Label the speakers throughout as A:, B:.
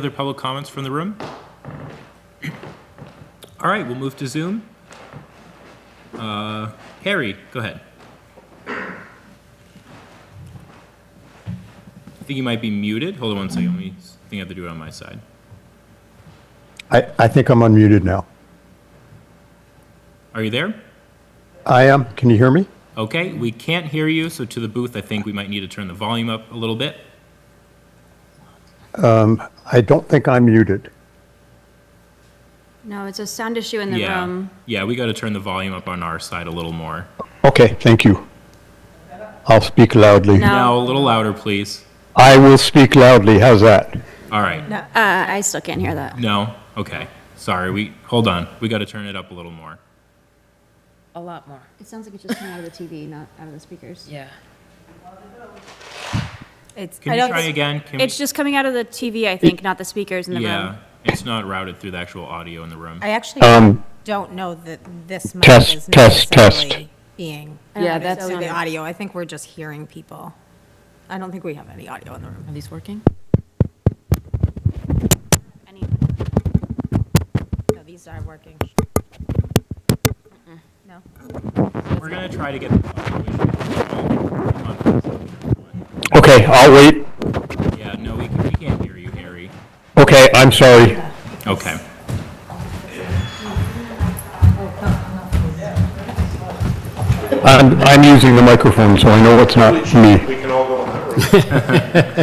A: Other public comments from the room? All right, we'll move to Zoom. Uh, Harry, go ahead. I think you might be muted. Hold on one second. Let me, I think I have to do it on my side.
B: I, I think I'm unmuted now.
A: Are you there?
B: I am. Can you hear me?
A: Okay, we can't hear you, so to the booth, I think we might need to turn the volume up a little bit.
B: I don't think I'm muted.
C: No, it's a sound issue in the
A: Yeah,
C: room.
A: yeah, we got to turn the volume up on our side a little more.
B: Okay, thank you. I'll speak loudly.
C: No.
A: Now, a little louder, please.
B: I will speak loudly. How's that?
A: All right.
C: No, uh, I still can't hear that.
A: No? Okay. Sorry, we, hold on. We got to turn it up a little more.
D: A lot more,
C: It sounds like it's just coming out of the TV, not out of the speakers.
D: yeah.
C: It's,
A: Can you try again? Can we-
C: It's just coming out of the TV, I think, not the speakers in the
A: Yeah,
C: room.
A: it's not routed through the actual audio in the room.
E: I actually don't know that this mic
B: Um, test,
E: is
B: test, test.
E: necessarily being.
D: Yeah,
E: that
D: that
E: is The
D: sounded-
E: audio, I think we're just hearing people. I don't think we have any audio in the room.
D: Are these working?
C: Any-
E: No, these are working. No?
A: We're gonna try to get. the audio issue.
B: Okay, I'll wait.
A: Yeah, no, we, can- we can't hear you, Harry.
B: Okay, I'm sorry.
A: Okay.
B: I'm, I'm using the microphone, so I know it's not me.
F: We can all go in that room.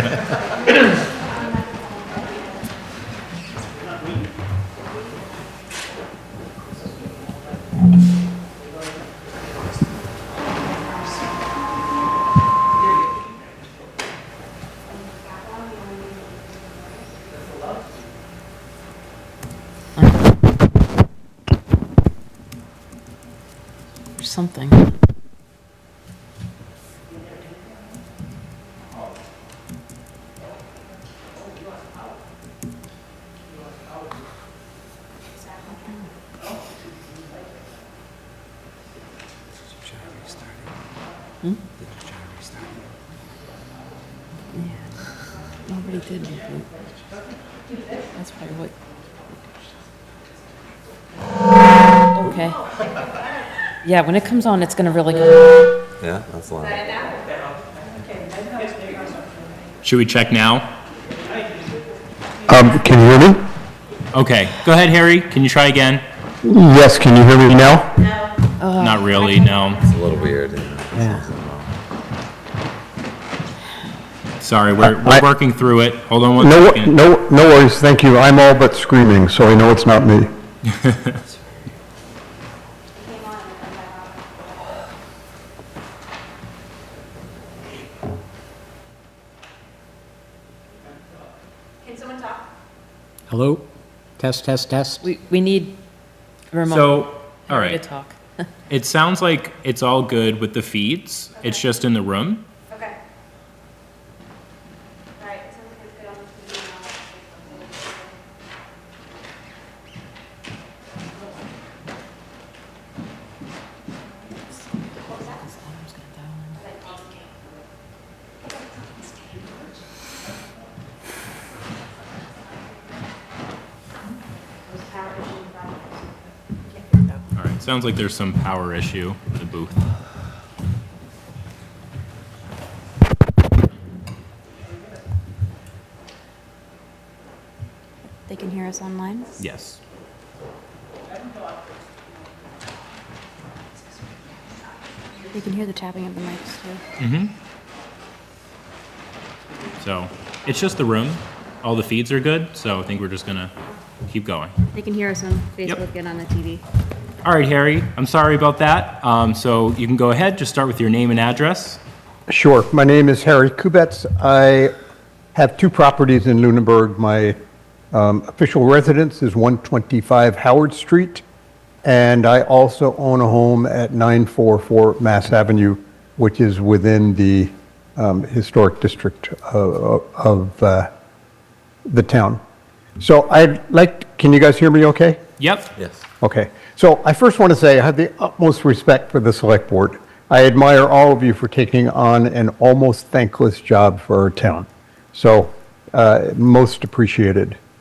D: Or something.
G: Hmm?
D: Nobody did. That's probably what. Okay. Yeah, when it comes on, it's gonna really go.
G: Yeah, that's loud.
A: Should we check now?
B: Um, can you hear me?
A: Okay, go ahead, Harry. Can you try again?
B: Yes, can you hear me now?
A: Not really, no.
G: It's a little weird. Yeah.
A: Sorry, we're,
B: I-
A: we're working through it. Hold on one
B: No,
A: second.
B: no, no worries. Thank you. I'm all but screaming, so I know it's not me.
H: Hello? Test, test, test?
D: We, we need a remote
A: So, all
D: to
A: right.
D: talk.
A: It sounds like it's all good with the feeds. It's just in the room.
C: Okay. All right, it sounds like it's good on the TV
A: All right, sounds like there's some power issue with the booth.
C: They can hear us online?
A: Yes.
C: They can hear the tapping of the mics, too.
A: So it's just the room. All the feeds are good, so I think we're just gonna keep going.
C: They can hear us on Facebook and on the TV.
A: All right, Harry, I'm sorry about that. Um, so you can go ahead, just start with your name and address.
B: Sure. My name is Harry Kubetz. I have two properties in Lunenburg. My um, official residence is 125 Howard Street, and I also own a home at 944 Mass Avenue, which is within the um, historic district of, of uh, the town. So I'd like, can you guys hear me okay?
A: Yep.
G: Yes.
B: Okay, so I first want to say I have the utmost respect for the Select Board. I admire all of you for taking on an almost thankless job for our town. So, uh, most appreciated.